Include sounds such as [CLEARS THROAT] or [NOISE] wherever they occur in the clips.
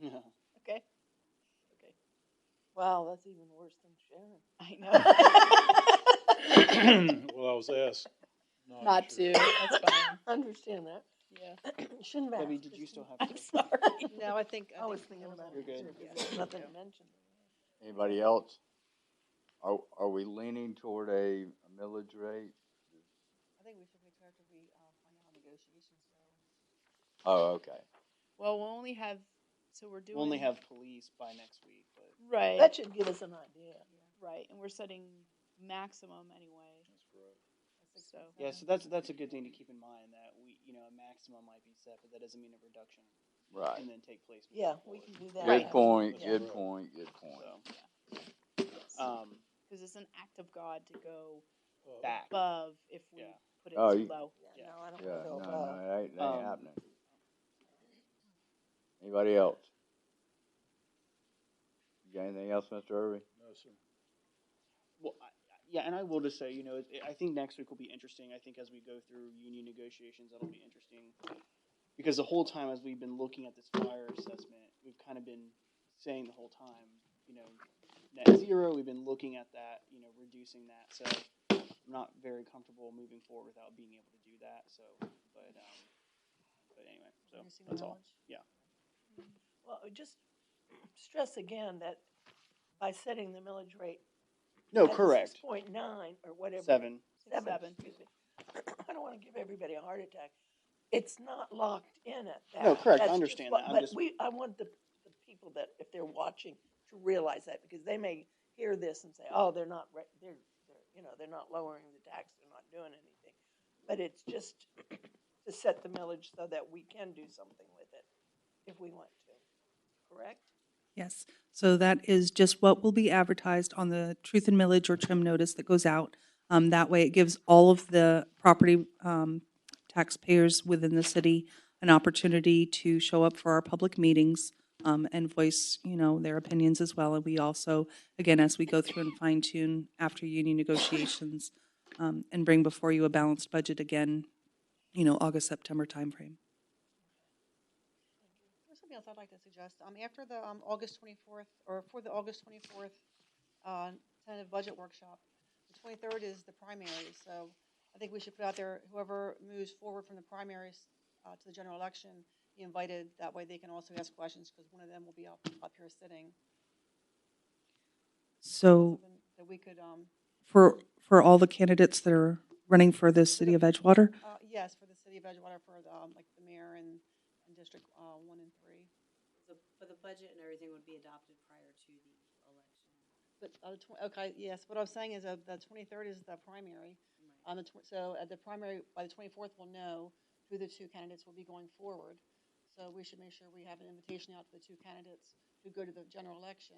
Yeah. Okay. Wow, that's even worse than Sharon. I know. [LAUGHS] [CLEARS THROAT] Well, I was asked. Not to. That's [LAUGHS] fine. I understand that. Yeah. Shouldn't have. Debbie, asked, did you just- still have? I'm to- sorry. [LAUGHS] No, I think. I was think thinking those about are- it. You're good. too. There's Nothing to mention. Anybody else? Are, are we leaning toward a millage rate? I think we should wait till after we um, find out how negotiations go. Oh, okay. Well, we'll only have, so we're doing. We'll only have police by next week, but Right. That should give us an idea. Right, and we're setting maximum anyway. At six So- point yeah, so seven. that's that's a good thing to keep in mind that we you know a maximum might be set, but that doesn't mean a reduction Right. can then take place. moving Yeah, forward. we can do that. Good point, Yeah. good point, good point. So, um, Because it's an act of God to go back. above if we Yeah. put it Oh, too you- low. Yeah, no, I don't Yeah, no, feel no, it ain't, it Um, ain't happening. Anybody else? You got anything else, Mr. Irving? No, sir. Well, I, I- yeah, and I will just say, you know, it- I think next week will be interesting. I think as we go through union negotiations, that'll be interesting because the whole time as we've been looking at this fire assessment, we've kind of been saying the whole time, you know, net zero. We've been looking at that, you know, reducing that. So I'm not very comfortable moving forward without being able to do that. So, but um, but anyway, so Nursing that's all. knowledge. Well, just stress again that by setting the millage rate. No, at correct. Six point nine or whatever. Seven. Seven, Seven. excuse me. I don't wanna give everybody a heart attack. It's not locked in at that. No, correct. I That's just understand what- that. I'm But just- we, I want the, the people that, if they're watching, to realize that, because they may hear this and say, oh, they're not, ra- they're, they're, you know, they're not lowering the tax, they're not doing anything. But it's just [CLEARS THROAT] to set the millage so that we can do something with it if we want to, correct? Yes, so that is just what will be advertised on the truth and millage or trim notice that goes out. Um, that way it gives all of the property, um, taxpayers within the city an opportunity to show up for our public meetings, um, and voice, you know, their opinions as well. And we also, again, as we go through and fine tune after union negotiations, um, and bring before you a balanced budget again, you know, August, September timeframe. There's something else I'd like to suggest. Um, after the, um, August twenty-fourth, or for the August twenty-fourth, uh, tentative budget workshop, the twenty-third is the primary, so I think we should put out there, whoever moves forward from the primaries, uh, to the general election, be invited, that way they can also ask questions, because one of them will be up, up here sitting. So Something That we could, um, for, for all the candidates that are running for the city of Edgewater, uh, yes, for the city of Edgewater, for, the, um, like, the mayor and, and district, uh, one and three. The, but the budget and everything would be adopted prior to the election. But, uh, tw- okay, yes, what I'm saying is, uh, the twenty-third is the primary, On the, tw- so at the primary, by the twenty-fourth, we'll know who the two candidates will be going forward. So we should make sure we have an invitation out to the two candidates who go to the general election,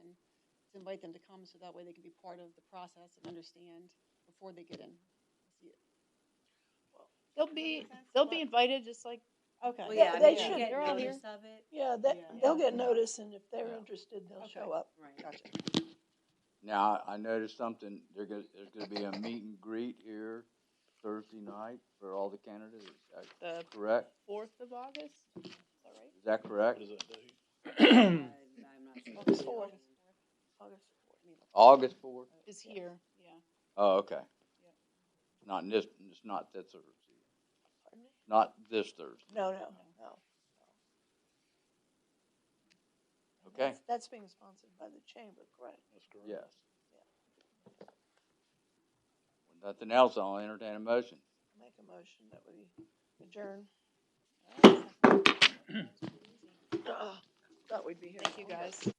to invite them to come, so that way they can be part of the process and understand before they get in. They'll be Makes sense. they'll be Yeah. invited just like Okay. Well, Yeah, yeah, I they mean, should. you get They're all notice of it. Yeah, they, Yeah. they'll get notice, and if they're interested, they'll Okay. show up. [COUGHS] Right. Gotcha. Now, I I noticed something, there go- there's gonna be a meet and greet here Thursday night for all the candidates, is that the correct? fourth of August. Is that right? Is that correct? I- I'm not sure. August fourth. August fourth. August fourth? Is here. Yeah. Oh, okay. Not this, it's not this Thursday, Pardon me? not this Thursday, No, no, no. okay? That's- That's being sponsored by the chamber, correct? Yes. With Nothing else, I'll entertain a motion. Make a motion that we adjourn. Thought we'd be here. [CLEARS THROAT] Thank you longer. guys.